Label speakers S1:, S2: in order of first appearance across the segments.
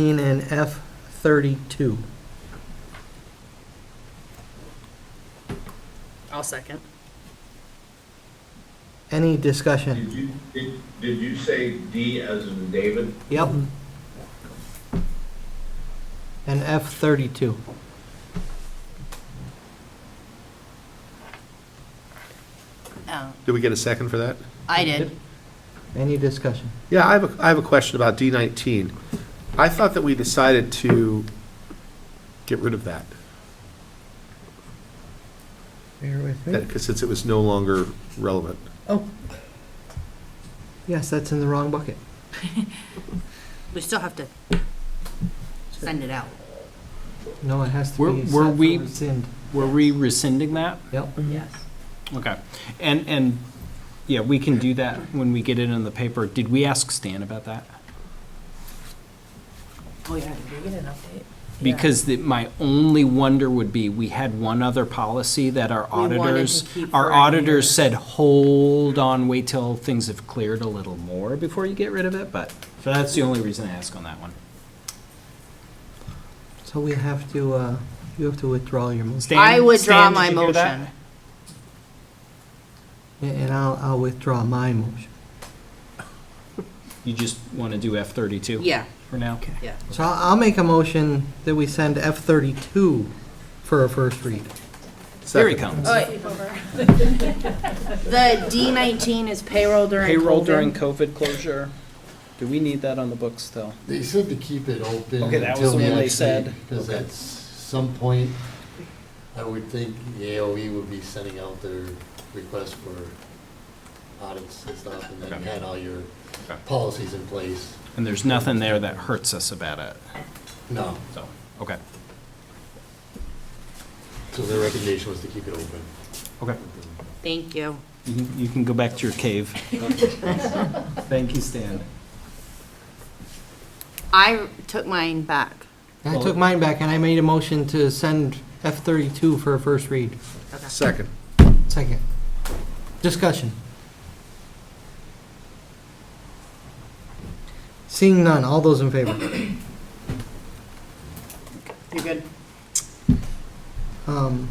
S1: and F thirty-two.
S2: I'll second.
S1: Any
S3: Did
S1: discussion?
S3: you, did, did you say D as in David?
S1: Yep. And F thirty-two.
S2: Oh,
S4: Did we get a second for that?
S2: I did.
S1: Any discussion?
S4: Yeah, I have, a I have a question about D19. I thought that we decided to get rid of that,
S1: Bear with me.
S4: because since it was no longer relevant.
S1: Oh. Yes, that's in the wrong bucket.
S2: We still have to send it out.
S1: No, it has to
S5: Were-
S1: be set
S5: were
S1: for
S5: we-
S1: rescind.
S5: Were we rescinding that?
S1: Yep.
S2: Yes.
S5: Okay. And, and, yeah, we can do that when we get it in the paper. Did we ask Stan about that?
S2: Oh, yeah, did we get an update?
S5: Because the- my only wonder would be, we had one other policy that our
S2: wanted to
S5: auditors,
S2: keep for
S5: our
S2: a
S5: auditors
S2: year.
S5: said, hold on, wait till things have cleared a little more before you get rid of it, but, so that's the only reason I ask on that one.
S1: So we have to, uh, you have to withdraw your motion.
S5: Stan-
S2: I withdraw
S5: Stan, did
S2: my
S5: you hear that?
S2: motion.
S1: And and I'll, I'll withdraw my motion.
S5: You just want to do F thirty-two?
S2: Yeah,
S5: For now? Okay.
S2: yeah.
S1: So I'll I'll make a motion that we send F thirty-two for a first read.
S5: Here he comes.
S2: The D nineteen is payroll during
S5: Payroll
S2: COVID.
S5: during COVID closure. Do we need that on the books still?
S6: They said to keep it open
S5: Okay, that was the
S6: until
S5: one they
S6: next week,
S5: said.
S6: because
S5: Okay.
S6: at s- some point, I would think the AOE would be sending out their request for audits and stuff, and then you had all your
S5: Okay.
S6: policies in place.
S5: And there's nothing there that hurts us about it,
S6: No,
S5: so, okay.
S6: so their recommendation was to keep it open.
S5: Okay.
S2: Thank you.
S5: You can- you can go back to your cave. Thank you, Stan.
S2: I took mine back.
S1: I took mine back and I made a motion to send F thirty-two for a first read.
S4: Second.
S1: Second. Discussion. Seeing none, all those in favor?
S2: You're good.
S1: Um,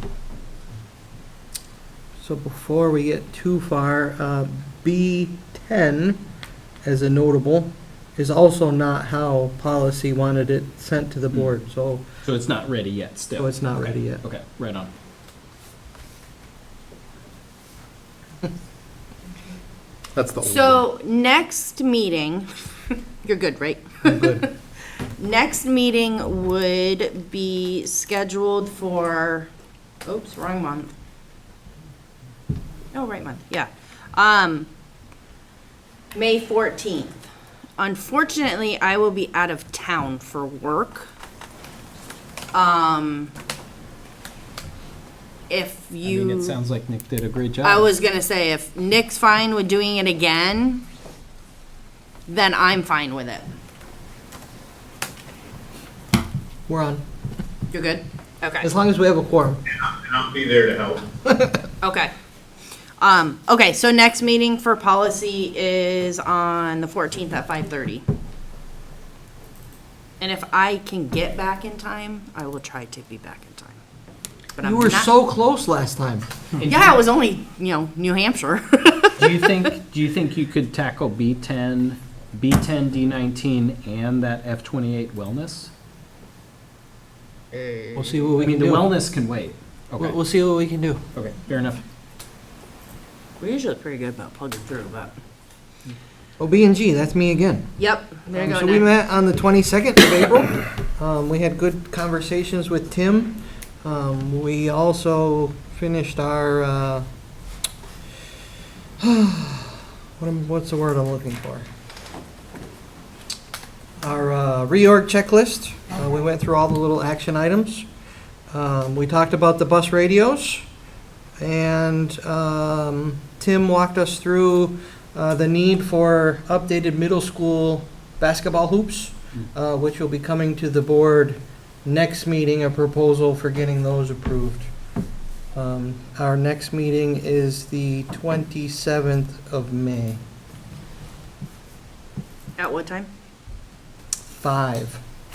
S1: So before we get too far, uh, B10, as a notable, is also not how policy wanted it sent to the board, so
S5: So it's not ready yet, still?
S1: so Oh, it's not
S5: Okay.
S1: ready yet.
S5: Okay, right on.
S4: That's the old one.
S2: So next meeting, you're good, right?
S1: I'm good.
S2: Next meeting would be scheduled for, oops, wrong month. No, right month, yeah. Um, May 14th. Unfortunately, I will be out of town for work. Um, if
S5: I
S2: you.
S5: mean, it sounds like Nick did a great job.
S2: I was gonna say, if Nick's fine with doing it again, then I'm fine with it.
S1: We're on,
S2: You're good? Okay,
S1: as long as we have a quorum.
S3: And I'll be there to help.
S2: okay. Um, okay, so next meeting for policy is on the fourteenth at five thirty. And if I can get back in time, I will try to be back in time. But I'm
S1: You were
S2: not-
S1: so close last time.
S2: Yeah, it was only, you know, New Hampshire.
S5: Do you think, do you think you could tackle B10, B10, D19, and that F28 wellness?
S1: We'll see what
S5: I
S1: we
S5: mean,
S1: can
S5: the
S1: do. We'll
S5: wellness can wait.
S1: we'll
S5: Okay,
S1: see what we can do.
S5: okay, fair enough.
S2: We're usually pretty good about plugging through, but.
S1: Oh, B and G, that's me again.
S2: Yep, there
S1: Um,
S2: you go,
S1: So we
S2: Nick.
S1: met on the 22nd of April. Um, We had good conversations with Tim. Um, We also finished our, uh, what am- what's the word I'm looking for? Our uh, reorg checklist. Uh, We went through all the little action items. Um, We talked about the bus radios, and um, Tim walked us through uh, the need for updated middle school basketball hoops, uh, which will be coming to the board next meeting, a proposal for getting those approved. Um, Our next meeting is the 27th of May,
S2: At what time?
S1: 5.